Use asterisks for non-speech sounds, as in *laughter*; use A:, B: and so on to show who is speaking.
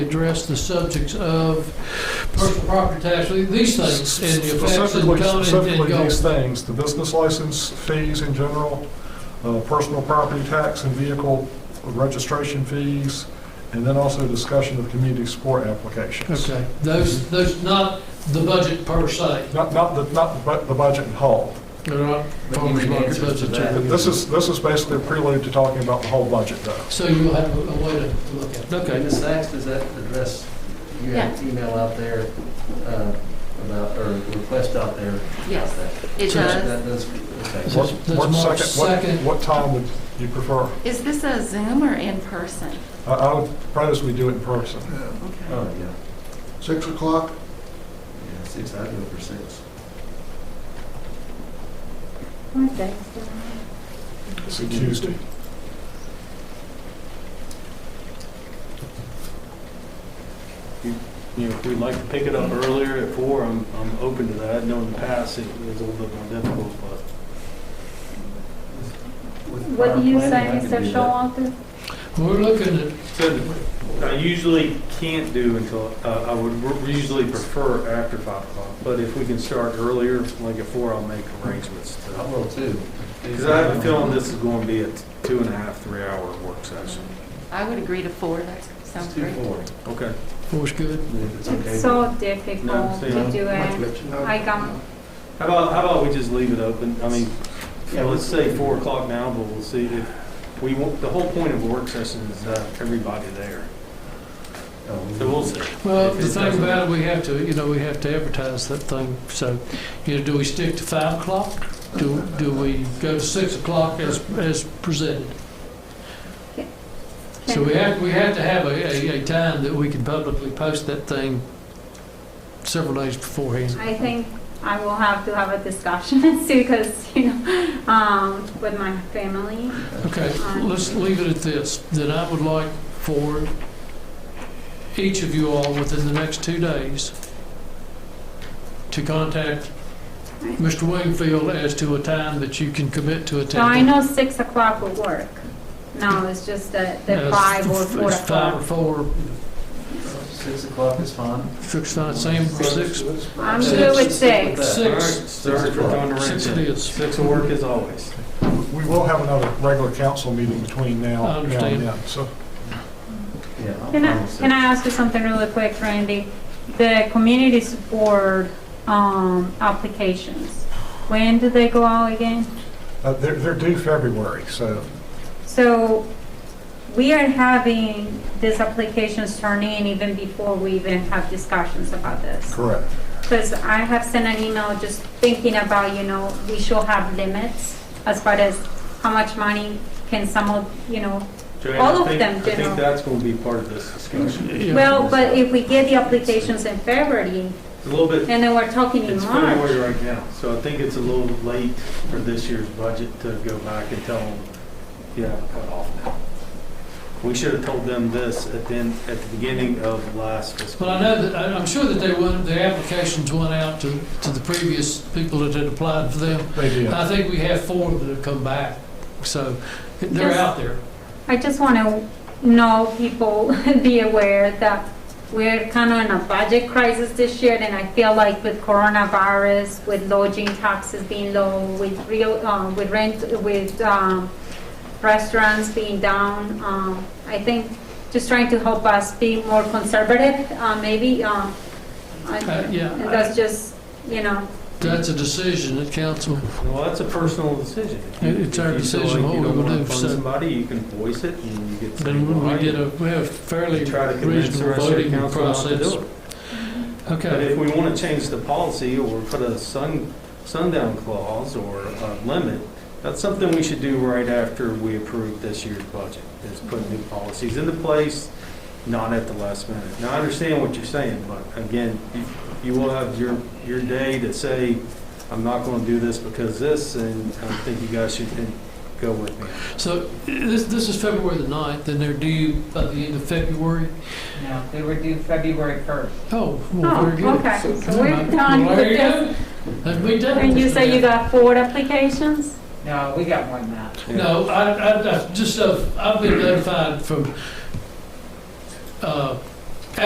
A: address the subjects of personal property tax, these things, and the effects and come
B: Specifically,
A: and- and
B: specifically
A: go.
B: these things, the business license fees in general, uh, personal property tax and vehicle registration fees, and then also discussion of community support applications.
A: Okay, those, those, not the budget per se,
B: Not, not the, not the bu- the budget in whole.
A: they're not
C: But you
A: farmer's
C: need
A: market
C: answers to
A: budget.
C: that.
B: But This is, this is basically a prelude to talking about the whole budget, though.
A: So you'll have a a way to to look at it. Okay,
C: Ms. Sacks, does that address, you had an email out there uh, about, or request out there? about
D: Yes,
C: that.
D: it does.
C: That does, okay.
A: So-
B: What-
A: That's
B: what
A: March
B: second- what-
A: second.
B: What time would you prefer?
D: Is this a Zoom or in person?
B: I- I would propose we do it in person.
D: Okay.
C: Oh, yeah,
E: Six o'clock,
C: yeah, six, I'd go for six.
B: It's a Tuesday.
F: You know, if we'd like to pick it up earlier at four, I'm, I'm open to that. I know in the past it was a little bit more difficult, but
C: With
G: What
C: prior
G: do you say,
C: Uh, planning, I could
G: Mr.
C: do that.
G: Showalter?
A: we're looking at
F: said, I usually can't do until, uh, I would r- usually prefer after five o'clock. But if we can start earlier, like at four, I'll make arrangements
C: I
F: to.
C: will too.
F: Because I have a feeling this is going to be a t- two and a half, three hour work session.
D: I would agree to four, that sounds
C: It's two,
D: great.
C: four.
F: Okay.
A: force good.
C: If it's okay.
G: It's so
F: No,
G: difficult
F: see,
G: to
F: I'm-
G: do it. I can,
F: How about, how about we just leave it open? I mean,
C: Yeah,
F: let's say four o'clock now, but we'll see if, we, want- the whole point of a work session is uh, everybody there.
C: Oh,
F: So we'll see.
A: Well,
F: If
A: the
F: it
A: thing
F: doesn't-
A: about it, we have to, you know, we have to advertise that thing, so, you know, do we stick to five o'clock? Do, do we go to six o'clock as, as presented? So we have, we have to have a, a, a time that we can publicly post that thing several days beforehand.
G: I think I will have to have a discussion *laughs* because, you know, um, with my family.
A: Okay, let's leave it at this, that I would like for each of you all within the next two days to contact Mr. Wingfield as to a time that you can commit to
G: So I
A: attending.
G: know six o'clock will work. No, it's just that the
A: Uh,
G: five or
A: it's
G: four
A: Five or
G: o'clock.
A: four,
C: Six o'clock is fine.
A: six, not same for six,
G: I'm good with six.
A: six,
C: Six
F: we're
C: o'clock.
F: throwing the
A: six
F: wrench
A: it
F: in.
A: is.
F: Six will work as always.
B: We will have another regular council meeting between now
A: I
B: now and
A: understand.
B: then. So
C: Yeah, I'll
G: Can
C: go
G: I,
C: with
G: can
C: six.
G: I ask you something really quick, Randy? The community support, um, applications, when do they go out again?
B: uh, they're they're due February, so
G: So we are having these applications turn in even before we even have discussions about this.
B: correct.
G: Because I have sent an email just thinking about, you know, we should have limits as far as how much money can some of, you know.
F: Joanne,
G: All
F: I
G: of
F: think-
G: them,
F: I
G: General.
F: think that's going to be part of this discussion.
A: Yeah.
G: Well, but if we get the applications in February
F: It's a little bit,
G: and then we're talking in
F: it's
G: March,
F: February right now, so I think it's a little late for this year's budget to go back and tell them, you have a cutoff now. We should have told them this at the, end- at the beginning of last fiscal.
A: But I know that, I- I'm sure that they went, the applications went out to, to the previous people that had applied for them.
B: They did.
A: I think we have four that have come back, so they're
G: Yes.
A: out there.
G: I just want to know people, *laughs* be aware that we're kind of in a budget crisis this year, and I feel like with coronavirus, with lodging taxes being low, with real, uh, with rent, with um, restaurants being down, um, I think just trying to help us be more conservative, uh, maybe. um, I-
A: Uh, yeah.
G: And that's just, you know,
A: That's a decision that council,
F: Well, that's a personal decision. If you-
A: It- it's our
F: if you feel
A: decision
F: like
A: what
F: you
A: we
F: don't
A: would
F: wanna
A: do,
F: fund
A: so-
F: Somebody, you can voice it and you get.
A: then when we get a, we have fairly
F: Try to convince the
A: reasonable
F: rest of the
A: voting
F: council not to do
A: process.
F: it. But
A: Okay,
F: if we want to change the policy or put a sun, sundown clause or a limit, that's something we should do right after we approve this year's budget, is put new policies into place, not at the last minute. Now, I understand what you're saying, but again, you- you will have your, your day to say, I'm not going to do this because this, and I think you guys should go with me.
A: so this, this is February the 9th, and they're due by the end of February?
H: No, they were due February 1st.
A: Oh, well,
G: oh,
A: very good.
G: okay, so we're done
A: Well,
G: with
A: there you
G: this.
A: go. Then we done.
G: And you say you got four applications?
H: No, we got more than that.
A: No, I, I, I just, uh, I've been notified from, uh,